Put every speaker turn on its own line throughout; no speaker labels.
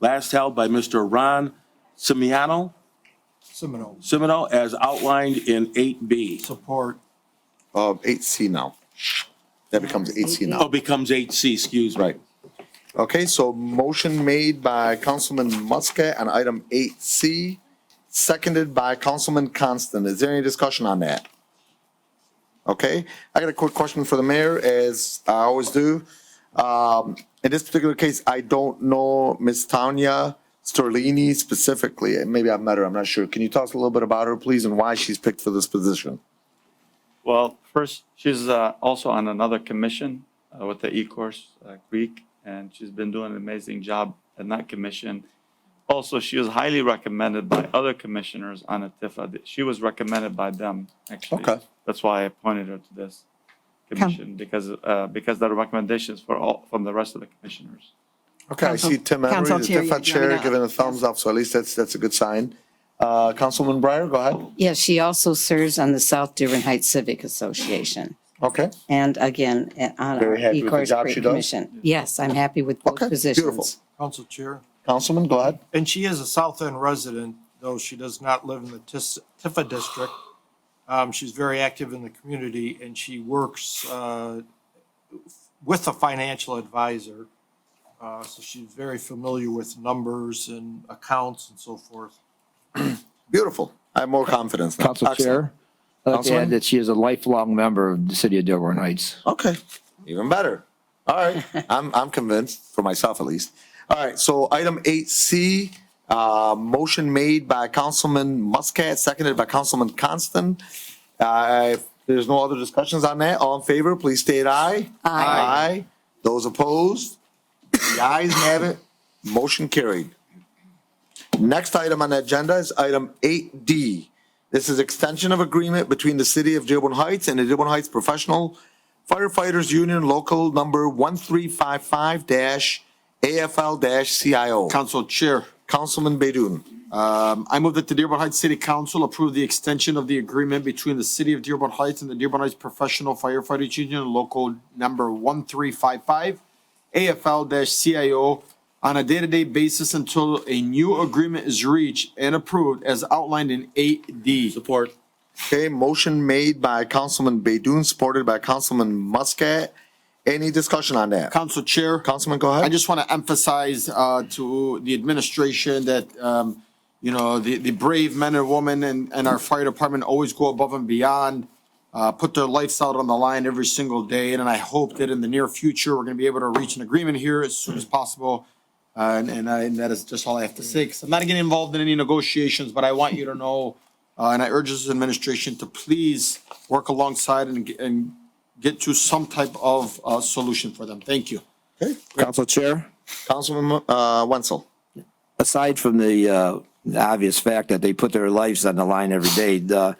last held by Mr. Ron Semiano,
Seminole.
Semino, as outlined in eight B.
Support.
Uh, eight C now. That becomes eight C
Oh,
now.
becomes eight C, excuse me.
Right. Okay, so motion made by Councilman Muscat on item eight C, seconded by Councilman Constant. Is there any discussion on that? Okay, I got a quick question for the mayor, as I always do. Um, in this particular case, I don't know Miss Tanya Sterlini specifically. and Maybe I've met her, I'm not sure. Can you tell us a little bit about her, please, and why she's picked for this position?
Well, first, she's uh, also on another commission uh, with the E-Course uh, Creek, and she's been doing an amazing job in that commission. Also, she was highly recommended by other commissioners on ATIFA. She was recommended by them, actually.
Okay.
That's why I appointed her to this commission, because, uh, because there are recommendations for all, from the rest of the commissioners.
Okay, I
Council-
see Tim Emery,
Council
the
Chair,
DIFA
you have it
Chair,
up.
giving a thumbs up, so at least that's, that's a good sign. Uh, Councilman Breyer, go ahead.
Yeah, she also serves on the South Dearborn Heights Civic Association.
Okay,
And again, eh, on our
Very happy with the
Ecorse
job
Creek
she does?
Commission. Yes, I'm happy with both
Okay, beautiful.
positions.
Council Chair.
Councilman, go ahead.
And she is a South End resident, though she does not live in the Tis- Tifa district. Um, she's very active in the community and she works, uh, with a financial advisor. Uh, so she's very familiar with numbers and accounts and so forth.
Beautiful. I have more confidence now.
Council Chair, I'd like to
Councilman?
add that she is a lifelong member of the city of Dearborn Heights.
Excellent. Okay, even better. All right, I'm, I'm convinced, for myself at least. All right, so item eight C, uh, motion made by Councilman Muscat, seconded by Councilman Constant. Uh, if there's no other discussions on that, all in favor, please state aye. Aye. Those opposed? The ayes have it. Motion carried. Next item on the agenda is item eight D. This is extension of agreement between the city of Dearborn Heights and the Dearborn Heights Professional Firefighters Union Local Number one three five five AFL CIO.
Council Chair,
Councilman Bedun.
um, I move that the Dearborn Heights City Council approve the extension of the agreement between the City of Dearborn Heights and the Dearborn Heights Professional Firefighters Union Local Number 1355 AFL-CIO on a day-to-day basis until a new agreement is reached and approved as outlined in 8D.
Support.
Okay, motion made by Councilman Bedun, supported by Councilman Muscat. Any discussion on that?
Council Chair.
Councilman, go ahead.
I just want to emphasize uh, to the administration that, um, you know, the the brave men and women and and our fire department always go above and beyond, uh, put their lives out on the line every single day. And I hope that in the near future, we're going to be able to reach an agreement here as soon as possible. Uh, And and I- and that is just all I have to say, 'cause I'm not getting involved in any negotiations, but I want you to know, uh, and I urge this administration to please work alongside and get- and get to some type of uh, solution for them. Thank you.
Council Chair,
Councilman, uh, Wenzel.
aside from the, uh, the obvious fact that they put their lives on the line every day, the,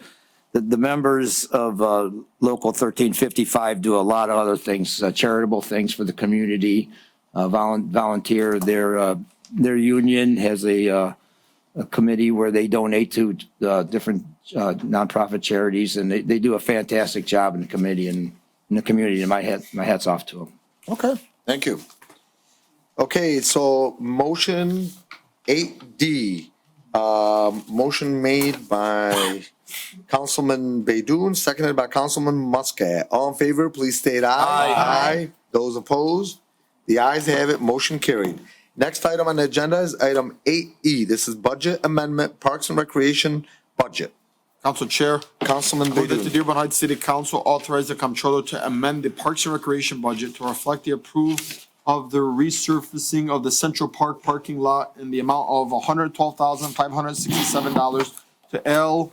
the, the members of, uh, Local thirteen fifty-five do a lot of other things, uh, charitable things for the community, uh, volun- volunteer. Their, uh, their union has a, uh, a committee where they donate to, uh, different, uh, nonprofit charities and they, they do a fantastic job in the committee and in the community. And my hat, my hat's off to them.
Okay, thank you. Okay, so motion eight D, um, motion made by Councilman Baidoon, seconded by Councilman Muscat. All in favor, please state aye. Aye. Those opposed? The ayes have it, motion carried. Next item on the agenda is item eight E. This is budget amendment, Parks and Recreation budget.
Council Chair,
Councilman
move that the
Baidoon.
Dearborn Heights City Council authorize the comptroller to amend the Parks and Recreation budget to reflect the approval of the resurfacing of the Central Park parking lot in the amount of hundred twelve thousand five hundred sixty-seven dollars to L,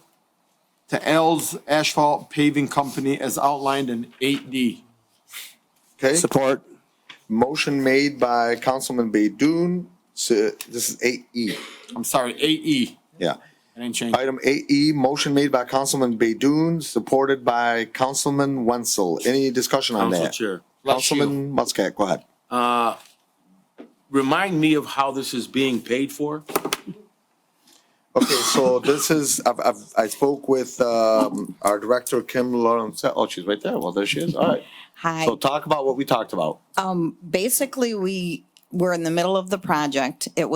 to L's Asphalt Paving Company as outlined in eight D.
Okay.
Support.
Motion made by Councilman Baidoon, so this is eight E,
I'm sorry, eight E.
yeah.
I didn't change.
Item eight E, motion made by Councilman Baidoon, supported by Councilman Wenzel. Any discussion on
Council
that?
Chair.
Bless you.
Councilman Muscat, go ahead.
Remind me of how this is being paid for?
Okay, so this is, I've, I've, I spoke with, um, our director, Kim Lawrence. Oh, she's right there. Well, there she is. All right.
Hi.
So talk about what we talked about.
Basically, we were in the middle of the project. It was